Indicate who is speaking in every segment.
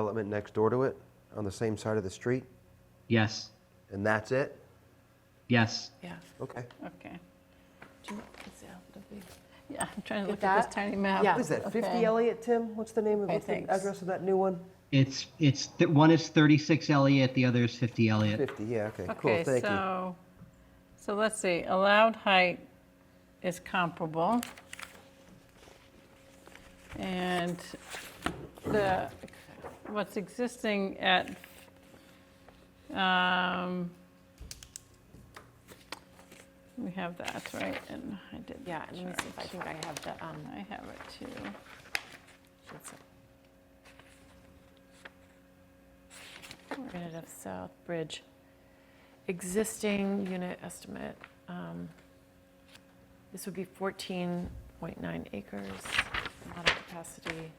Speaker 1: development next door to it, on the same side of the street,
Speaker 2: Yes,
Speaker 1: and that's it?
Speaker 2: yes.
Speaker 3: Yeah,
Speaker 1: Okay.
Speaker 3: okay. Yeah, I'm trying to
Speaker 4: Get
Speaker 3: look at
Speaker 4: that?
Speaker 3: this tiny map.
Speaker 4: Yeah.
Speaker 1: What is that, 50
Speaker 3: Okay.
Speaker 1: Elliott, Tim? What's the name of,
Speaker 3: Okay,
Speaker 1: what's the
Speaker 3: thanks.
Speaker 1: address of that new one?
Speaker 2: It's, it's, th- one is 36 Elliott, the other is 50 Elliott.
Speaker 1: 50, yeah, okay, cool,
Speaker 3: Okay,
Speaker 1: thank you.
Speaker 3: so, so let's see, allowed height is comparable. And the, what's existing at, um, we have that, right? And I did.
Speaker 4: Yeah, let me see if I
Speaker 3: chart.
Speaker 4: think I have the, um,
Speaker 3: I have it too.
Speaker 4: it's- we're gonna have South Bridge. Existing unit estimate, um, this would be 14.9 acres, model capacity,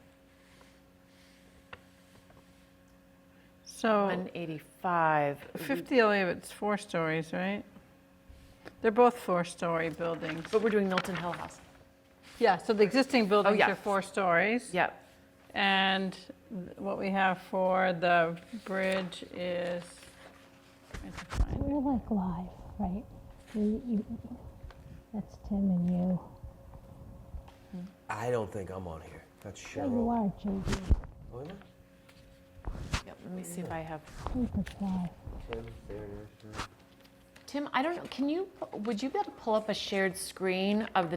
Speaker 3: So.
Speaker 4: 185. It would be-
Speaker 3: 50 Elliott, oh, it's four stories, right? They're both four-story buildings.
Speaker 4: But we're doing Milton Hill House.
Speaker 3: Yeah, so the existing buildings
Speaker 4: yeah.
Speaker 3: are four stories.
Speaker 4: Yep,
Speaker 3: And th- what we have for the bridge is, I have to find it.
Speaker 5: We're like live, right? You, you, that's Tim and you.
Speaker 1: I don't think I'm on here. That's
Speaker 5: But you
Speaker 1: Cheryl.
Speaker 5: are, JD.
Speaker 1: Oh, am I?
Speaker 4: yep, let me see if I have,
Speaker 5: Super fly.
Speaker 1: Tim, there it is.
Speaker 4: Tim, I don't know, can you, would you be able to pull up a shared screen of the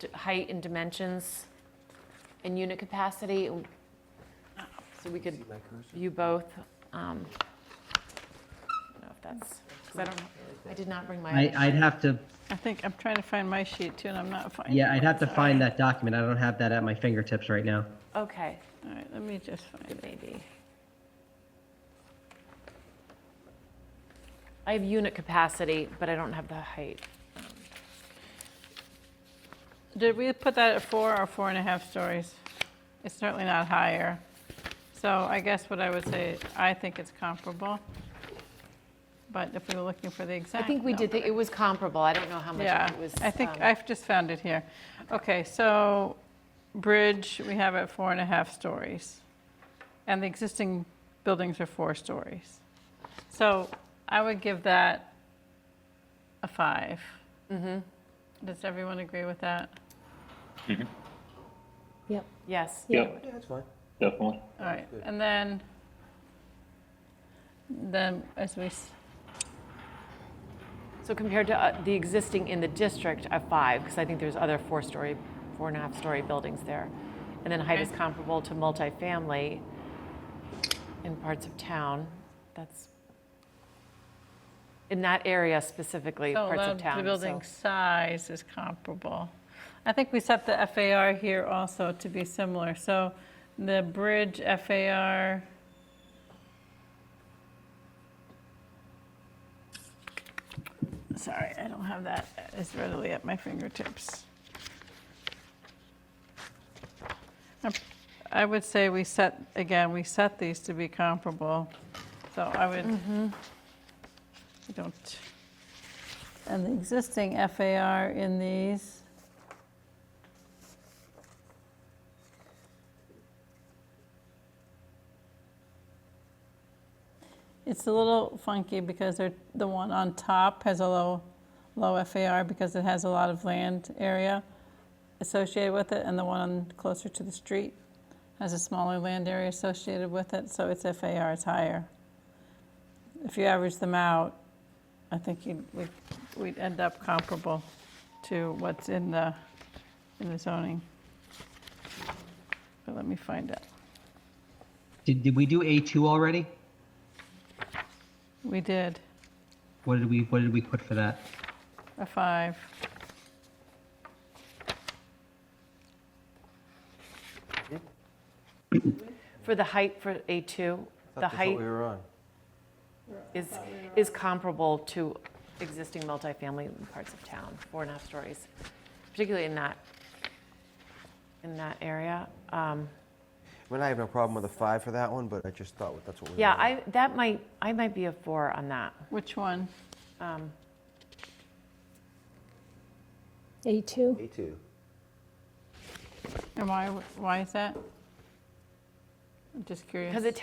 Speaker 4: d- height and dimensions and unit capacity? So we could
Speaker 1: See my cursor?
Speaker 4: view both. um, I don't know if that's, because I don't, I did not bring my.
Speaker 2: I, I'd have to,
Speaker 3: I think, I'm trying to find my sheet too, and I'm not finding it.
Speaker 2: yeah, I'd have to find that document. I don't have that at my fingertips right now.
Speaker 4: Okay,
Speaker 3: All right, let me just find it.
Speaker 4: maybe. I have unit capacity, but I don't have the height.
Speaker 3: Did we put that at four or four and a half stories? It's certainly not higher. So I guess what I would say, I think it's comparable. But if we were looking for the
Speaker 4: I
Speaker 3: exact.
Speaker 4: think we did,
Speaker 3: number-
Speaker 4: think it was comparable. I don't know how much
Speaker 3: Yeah,
Speaker 4: it was.
Speaker 3: I think,
Speaker 4: um,
Speaker 3: I've just found it here. Okay, so bridge, we have at four and a half stories. And the existing buildings are four stories. So I would give that a five.
Speaker 4: Mm-hmm.
Speaker 3: Does everyone agree with that?
Speaker 5: Yep.
Speaker 4: Yes.
Speaker 6: Yeah,
Speaker 1: Yeah, that's fine.
Speaker 6: definitely.
Speaker 3: All right, and then, then as we, s-
Speaker 4: So compared to uh, the existing in the district of five, because I think there's other four-story, four and a half story buildings there. And then height is
Speaker 3: Okay.
Speaker 4: comparable to multifamily in parts of town. That's in that area specifically,
Speaker 3: so
Speaker 4: parts of
Speaker 3: allowed-
Speaker 4: town.
Speaker 3: the
Speaker 4: so-
Speaker 3: building size is comparable. I think we set the FAR here also to be similar, so the bridge FAR, sorry, I don't have that as readily at my fingertips. Um, I would say we set, again, we set these to be comparable, so I would,
Speaker 4: Mm-hmm.
Speaker 3: we don't, and the existing FAR in these, it's a little funky because they're, the one on top has a low, low FAR because it has a lot of land area associated with it, and the one closer to the street has a smaller land area associated with it, so its FAR is higher. If you average them out, I think you'd, we'd, we'd end up comparable to what's in the, in the zoning. But let me find it.
Speaker 2: Did, did we do A2 already?
Speaker 3: We did
Speaker 2: What did we, what did we put for that?
Speaker 3: a five.
Speaker 4: For the height for A2,
Speaker 1: I thought
Speaker 4: the
Speaker 1: that's what
Speaker 4: height
Speaker 1: we were on.
Speaker 4: is, is comparable to existing multifamily in parts of town, four and a half stories, particularly in that, in that area. Um,
Speaker 1: I mean, I have no problem with a five for that one, but I just thought that's what we were
Speaker 4: Yeah,
Speaker 1: on.
Speaker 4: I, that might, I might be a four on that.
Speaker 3: Which one?
Speaker 4: Um,
Speaker 5: A2.
Speaker 1: A2.
Speaker 3: And why, why is that? I'm just curious.
Speaker 4: Because it